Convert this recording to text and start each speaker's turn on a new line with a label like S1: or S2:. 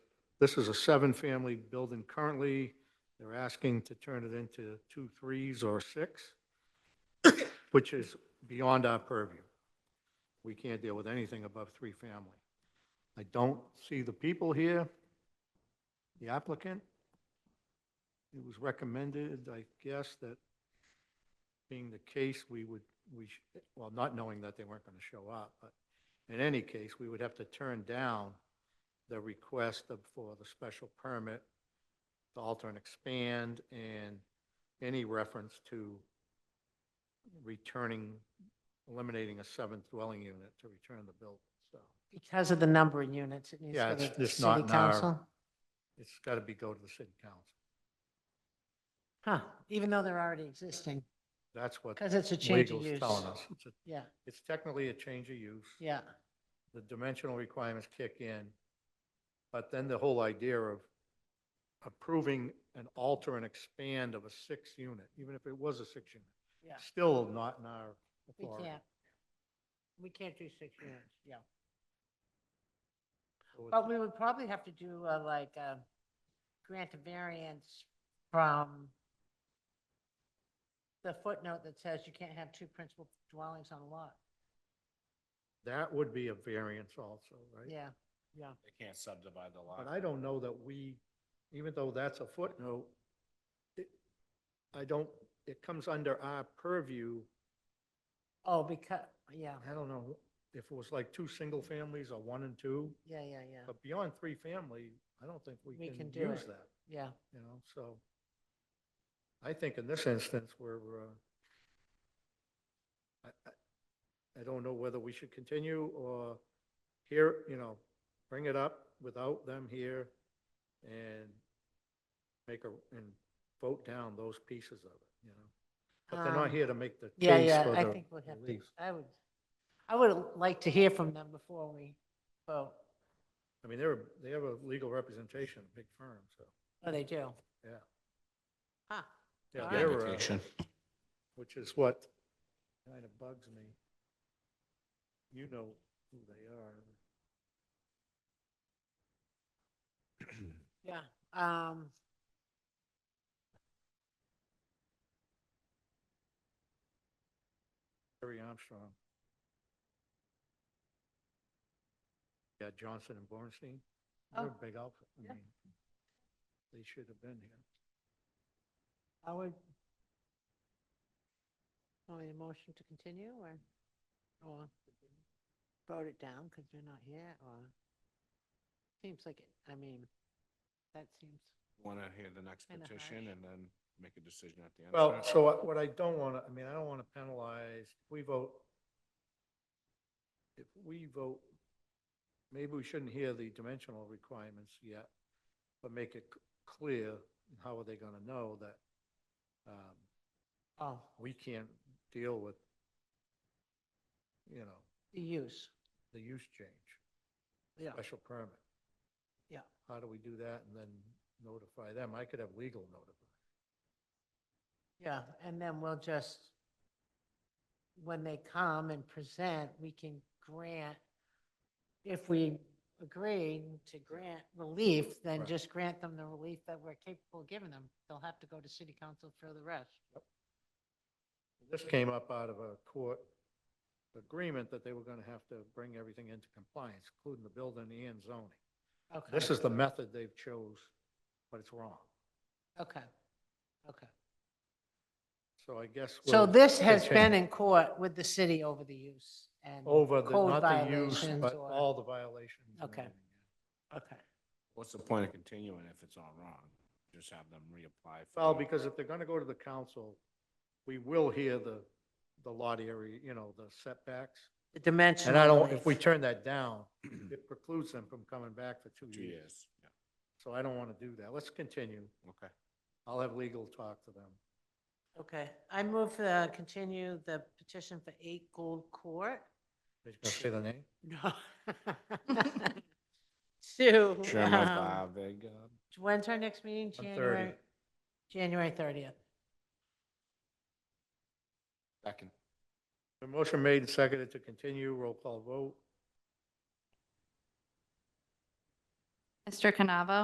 S1: This is a seven-family building currently. They're asking to turn it into two threes or six, which is beyond our purview. We can't deal with anything above three-family. I don't see the people here, the applicant. It was recommended, I guess, that being the case, we would, we, sh- well, not knowing that they weren't going to show up, but in any case, we would have to turn down the request of- for the special permit to alter and expand and any reference to returning, eliminating a seventh dwelling unit to return the building. So
S2: Because of the number of units, it needs
S1: Yeah,
S2: to go
S1: it's-
S2: to the
S1: it's not
S2: city
S1: in our-
S2: council.
S1: it's got to be go to the city council.
S2: Huh, even though they're already existing,
S1: That's what
S2: because it's a change of
S1: legal's
S2: use.
S1: telling us. It's a-
S2: Yeah,
S1: It's technically a change of use.
S2: yeah,
S1: the dimensional requirements kick in. But then the whole idea of approving an alter and expand of a six unit, even if it was a six unit,
S2: yeah.
S1: still not in our
S2: We
S1: authority.
S2: can't, we can't do six units, yeah.
S1: So it's-
S2: But we would probably have to do uh, like uh grant a variance from the footnote that says you can't have two principal dwellings on a lot.
S1: That would be a variance also, right?
S2: Yeah, yeah.
S3: They can't subdivide the lot.
S1: But I don't know that we, even though that's a footnote, it, I don't, it comes under our purview.
S2: Oh, because, yeah,
S1: I don't know if it was like two single families or one and two,
S2: yeah, yeah, yeah,
S1: but beyond three family, I don't think we
S2: We
S1: can
S2: can do
S1: use
S2: it.
S1: that.
S2: yeah.
S1: you know, so I think in this instance, we're, uh, I, I- I don't know whether we should continue or here, you know, bring it up without them here and make a, and vote down those pieces of it, you know? But they're not
S2: Um,
S1: here to make the
S2: Yeah,
S1: case
S2: yeah,
S1: for
S2: I
S1: the
S2: think we'd have to,
S1: relief.
S2: I would, I would like to hear from them before we vote.
S1: I mean, they're, they have a legal representation, a big firm, so,
S2: Oh, they do?
S1: Yeah.
S2: Huh,
S1: yeah,
S2: All right.
S1: they're, uh, which is what kind of bugs me. You know who they are.
S2: yeah. Um,
S1: Harry Armstrong. Yeah, Johnson and Bornstein. They're
S2: Oh,
S1: a big outfit.
S2: yeah.
S1: I mean, they should have been here.
S2: I would. Want me to motion to continue or, or vote it down because they're not here or? Seems like it, I mean, that seems,
S3: Want to hear the next
S2: Kinda
S3: petition
S2: harsh.
S3: and then make a decision at the end. of
S1: Well,
S3: it?
S1: so uh, what- what I don't want to, I mean, I don't want to penalize, if we vote, if we vote, maybe we shouldn't hear the dimensional requirements yet, but make it c- clear, how are they going to know that um,
S2: oh,
S1: we can't deal with, you know,
S2: the use,
S1: the use change?
S2: yeah.
S1: special permit.
S2: Yeah.
S1: How do we do that and then notify them? I could have legal notify.
S2: Yeah, and then we'll just, when they come and present, we can grant, if we agree to grant relief, then
S1: Right.
S2: just grant them the relief that we're capable of giving them. They'll have to go to city council for the rest.
S1: This came up out of a court agreement that they were going to have to bring everything into compliance, including the building and zoning.
S2: Okay.
S1: This is the method they've chose, but it's wrong.
S2: Okay, okay.
S1: So I guess.
S2: So
S1: we'll-
S2: this has
S1: Okay.
S2: been in court with the city over the use and.
S1: Over the,
S2: code
S1: not the use,
S2: violations
S1: but
S2: or-
S1: all the violations. and
S2: Okay.
S1: everything.
S2: Okay,
S3: What's the point of continuing if it's all wrong? Just have them reapply. for
S1: Well,
S3: it.
S1: because if they're going to go to the council, we will hear the, the lot area, you know, the setbacks.
S2: the dimensional.
S1: And I don't, if
S2: relief.
S1: we turn that down, it precludes them from coming back for two
S3: Two
S1: years.
S3: years, yeah,
S1: So I don't want to do that. Let's continue.
S3: okay.
S1: I'll have legal talk to them.
S2: Okay, I move to continue the petition for eight Gold Court.
S1: Are you going to say the name?
S2: No. Sue.
S3: Chairman
S2: um,
S3: Bavig, uh,
S2: When's our next meeting?
S1: On 30.
S2: January, January 30th.
S3: second.
S1: The motion made and seconded to continue. Roll call vote.
S4: Mr. Canavo?